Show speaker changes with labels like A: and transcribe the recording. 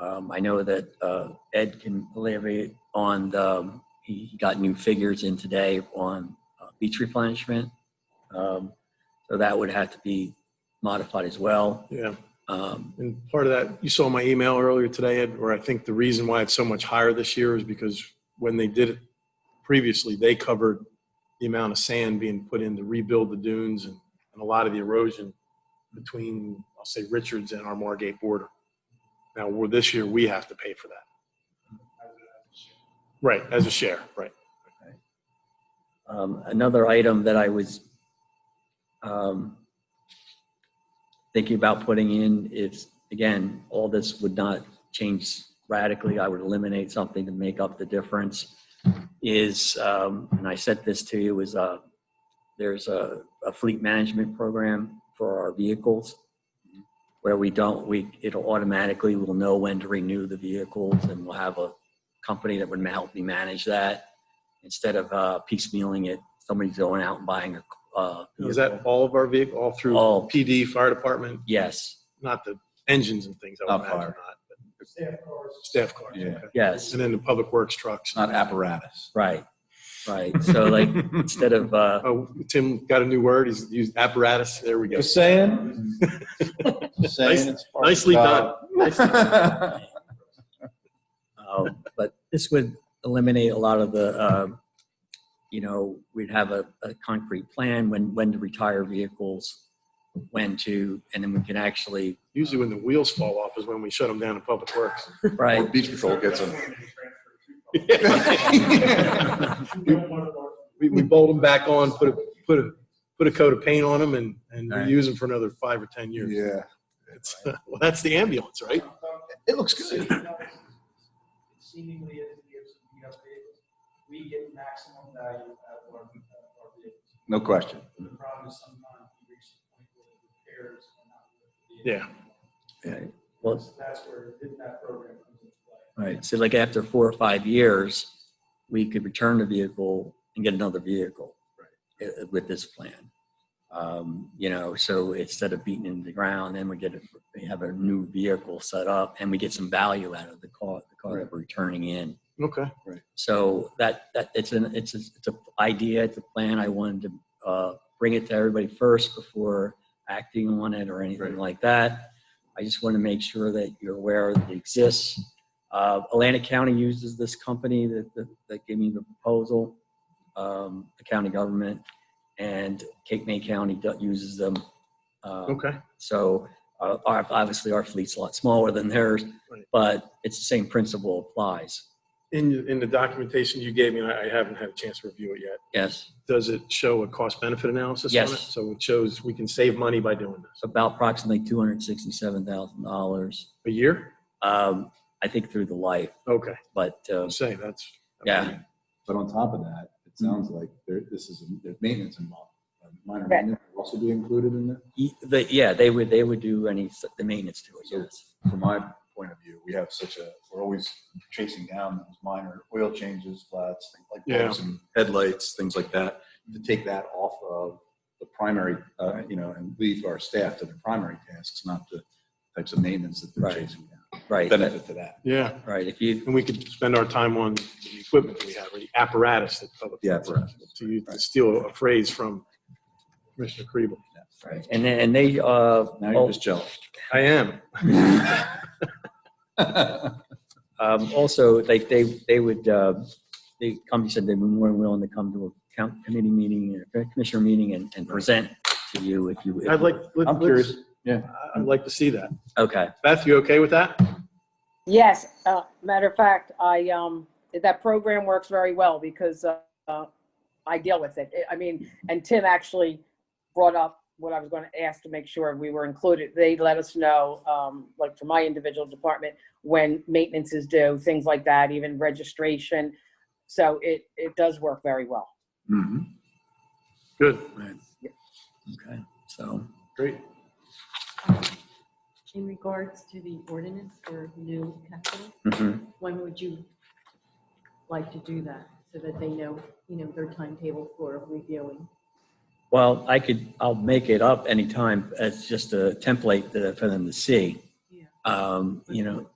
A: Um, I know that uh, Ed can levy on the, um, he got new figures in today on uh, beach replenishment. Um, So that would have to be modified as well.
B: Yeah,
A: Um,
B: and part of that, you saw my email earlier today, Ed, where I think the reason why it's so much higher this year is because when they did it previously, they covered the amount of sand being put in to rebuild the dunes and, and a lot of the erosion between, I'll say, Richards and our Margate border. Now, we're, this year, we have to pay for that. Right, as a share, right.
A: Um, Another item that I was um, thinking about putting in is, again, all this would not change radically. I would eliminate something to make up the difference. Is, um, and I sent this to you, is uh, there's a a fleet management program for our vehicles where we don't, we, it'll automatically, we'll know when to renew the vehicles and we'll have a company that would help me manage that instead of uh, piecemealing it, somebody's going out and buying a. Uh,
B: Is that all of our vehicle, all through
A: All.
B: PD, fire department,
A: Yes,
B: not the engines and things, I would
C: Not
B: imagine
C: fire.
B: not. but- Staff cars.
C: Yeah.
B: okay.
A: yes,
B: And then the public works trucks.
C: It's not apparatus.
A: right, right. So like instead of uh,
B: Oh, Tim got a new word. He's used apparatus. There we go.
C: Just saying. Just saying it's part of the
B: Nicely done.
C: job.
A: uh, but this would eliminate a lot of the, uh, you know, we'd have a, a concrete plan when when to retire vehicles, when to, and then we can actually
B: Usually when the wheels fall off is when we shut them down in public works.
C: Or
A: right.
C: beach patrol gets them.
B: We, we bolt them back on, put a, put a, put a coat of paint on them and, and
C: Right.
B: reuse them for another five or 10 years.
C: Yeah.
B: It's, well, that's the ambulance, right?
C: It looks good.
D: Seemingly, as it gives the update, we get maximum value out of our, out of our vehicles.
C: No question.
D: The problem is sometimes we reach the point where the repairs are not. worth the
B: Yeah.
A: Well,
D: So That's where, did that program comes into play.
A: Right, so like after four or five years, we could return the vehicle and get another vehicle uh, with this plan. Um, You know, so instead of beating it in the ground, then we get, a- we have a new vehicle set up and we get some value out of the car, the car that we're returning in.
B: Okay.
A: So that, that, it's an, it's, a- it's an idea, it's a plan. I wanted to uh, bring it to everybody first before acting on it or anything
C: Right.
A: like that. I just want to make sure that you're aware that it exists. Uh, Atlantic County uses this company that, that, that gave me the proposal, um, the county government, and Cape May County do- uses them. Um,
B: Okay.
A: so uh, our, obviously our fleet's a lot smaller than theirs,
B: Right.
A: but it's the same principle applies.
B: In, in the documentation you gave me, and I I haven't had a chance to review it yet.
A: Yes.
B: Does it show a cost benefit analysis on
A: Yes.
B: it? So it shows we can save money by doing this.
A: about approximately two hundred sixty-seven thousand dollars.
B: A year?
A: Um, I think through the life,
B: Okay.
A: but uh,
B: I'm saying that's.
A: yeah,
C: But on top of that, it sounds like there, this is, there's maintenance involved. Minor maintenance will also be included in it.
A: E- the, yeah, they would they would do any s- the maintenance to it.
C: So-
A: Yes,
C: From my point of view, we have such a, we're always chasing down those minor oil changes, flats, things like
B: Yeah.
C: those, and headlights, things like that. To take that off of the primary, uh, you know, and leave our staff to their primary tasks, not the types of maintenance that they're
A: Right.
C: chasing down.
A: right, that-
C: Benefit to that.
B: Yeah.
A: right. If you
B: And we could spend our time on the equipment that we have, or the apparatus that public.
C: Yeah, apparatus.
B: To use- to steal a phrase from Commissioner Kriebel.
A: right, and then, and they uh,
C: Now you're
A: al-
C: just jealous.
B: I am.
C: Mm-hmm.
A: um, also like they they would uh, the company said they'd be more than willing to come to a count committee meeting or commissioner meeting and, and present to you if you. if-
B: I'd like. let-
C: I'm curious.
B: let's-
C: Yeah.
B: I'd like to see that.
A: Okay,
B: Beth, you okay with that?
E: Yes, uh, matter of fact, I, um, that program works very well because, uh, uh, I deal with it. I mean, and Tim actually brought up what I was going to ask to make sure we were included. They let us know, um, like for my individual department, when maintenance is due, things like that, even registration. So it, it does work very well.
C: Mhm.
B: Good.
A: okay, so
B: Great.
F: Um, In regards to the ordinance for new capital,
A: mhm.
F: when would you like to do that? So that they know, you know, their timetable for reviewing.
A: well, I could I'll make it up anytime. It's just a template that, for them to see.
F: Yeah.
A: Um, you know,